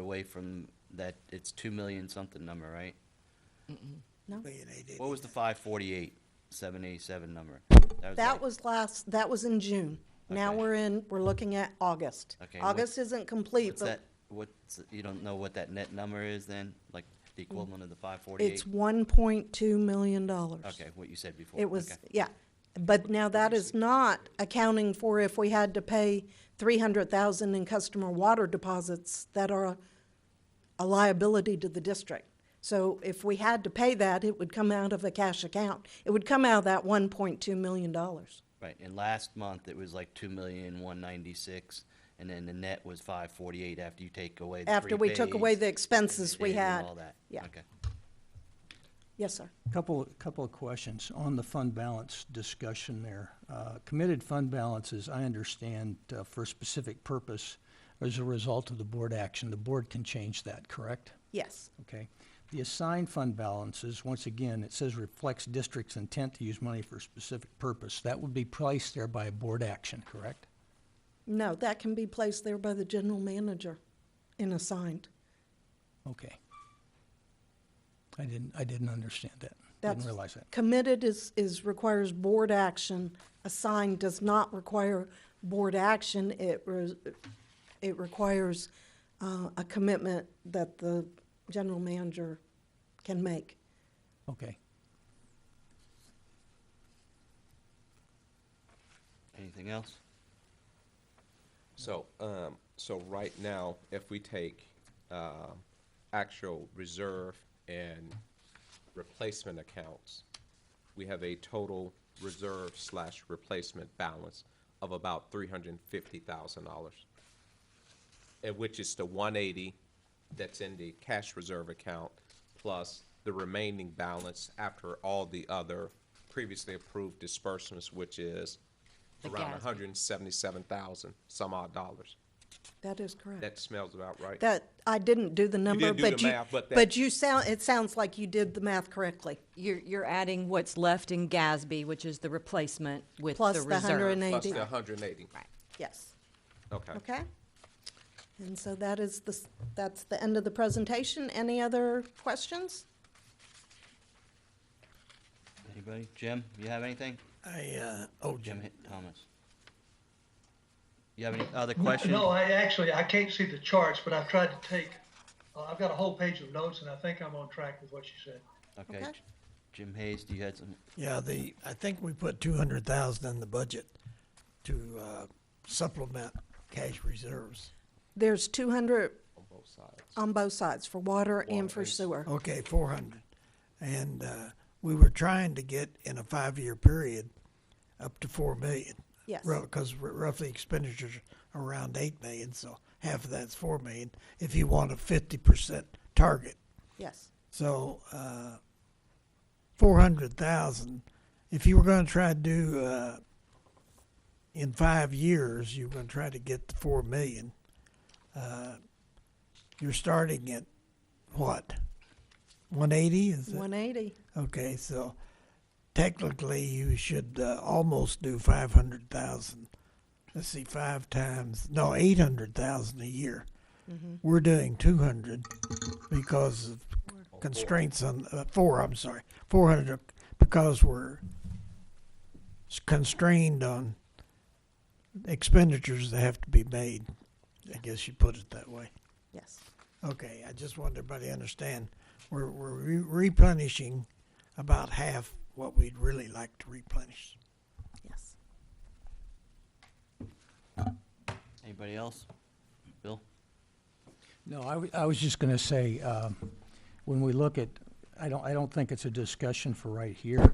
away from that, it's two million something number, right? No, Million eight eighty. What was the five forty-eight, seven eighty-seven number? that like- was last, that was in June. Now Okay. we're in, we're looking at August. Okay, and what- August isn't complete, What's that, but what's, you don't know what that net number is then, like the equivalent of the five forty-eight? Mm. it's one point two million dollars. Okay, what you said before. It was, okay. yeah, but now that is not accounting for if we had to pay three hundred thousand in customer water deposits that are a liability to the district. So if we had to pay that, it would come out of a cash account. It would come out of that one point two million dollars. Right, and last month it was like two million, one ninety-six, and then the net was five forty-eight after you take away the After we took away prepaids the and expenses we and had. all that. Yeah, Okay. yes, sir. Couple, couple of questions on the fund balance discussion there. Uh, Committed fund balances, I understand, uh, for a specific purpose as a result of the board action. The board can change that, correct? Yes, Okay. The assigned fund balances, once again, it says reflects district's intent to use money for a specific purpose. That would be placed there by a board action, correct? no, that can be placed there by the general manager and assigned. Okay. I didn't, I didn't understand that. That's- Didn't realize that. Committed is, is, requires board action. Assigned does not require board action. It, re- it requires uh, a commitment that the general manager can make. Okay. Anything else? So, um, so right now, if we take, um, actual reserve and replacement accounts, we have a total reserve slash replacement balance of about three hundred and fifty thousand dollars. And which is the one eighty that's in the cash reserve account, plus the remaining balance after all the other previously approved disbursements, which is The around gas. hundred and seventy-seven thousand, some odd dollars. That is correct. That smells about right. That, I didn't do the number, didn't do but the you, math, but that- but you sound, it sounds like you did the math correctly. You're, you're adding what's left in GASB, which is the replacement with the Plus reserve. the hundred and Plus eighty, the hundred and eighty. Right. yes, Okay. okay? And so that is the, s- that's the end of the presentation. Any other questions? Anybody? Jim, you have anything? I, uh, oh, Jim Jim. Hi- Thomas. You have any other questions? No, I actually, I can't see the charts, but I've tried to take, uh, I've got a whole page of notes, and I think I'm on track with what you said. Okay. Okay. J- Jim Hayes, do you had some, Yeah, the, I think we put two hundred thousand in the budget to, uh, supplement cash reserves. There's two hundred On both sides. on both sides, for water and for Water. sewer. Okay, four hundred. And, uh, we were trying to get in a five-year period up to four million. Yes. Because roughly expenditures are around eight million, so half of that's four million, if you want a fifty percent target. Yes, So uh, four hundred thousand. If you were going to try to do uh, in five years, you were going to try to get the four million. Uh, you're starting at what? One eighty is it? one eighty. Okay, so technically you should uh, almost do five hundred thousand. Let's see, five times no eight hundred thousand a year. We're doing two hundred because of constraints on uh, four. I'm sorry, four hundred because we're s- constrained on expenditures that have to be made. I guess you put it that way. Yes, Okay, I just want everybody to understand, we're, we're re- replenishing about half what we'd really like to replenish. yes. anybody else? Bill? No, I, w- I was just gonna say, um, when we look at, I don't, I don't think it's a discussion for right here,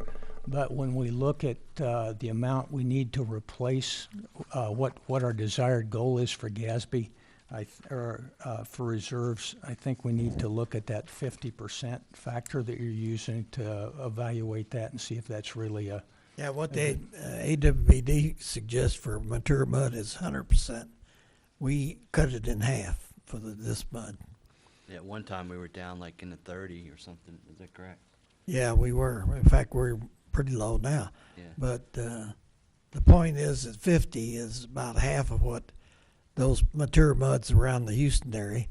but when we look at, uh, the amount we need to replace, uh, what, what our desired goal is for GASB, I, th- or, uh, for reserves, I think we need to look at that fifty percent factor that you're using to evaluate that and see if that's really a, Yeah, what the uh, AWBD suggests for mature mud is hundred percent. We cut it in half for the, this mud. Yeah, at one time we were down like in the thirty or something, is that correct? Yeah, we were. In fact, we're pretty low now. Yeah. But uh, the point is that 50 is about half of what those mature muds around the Houston area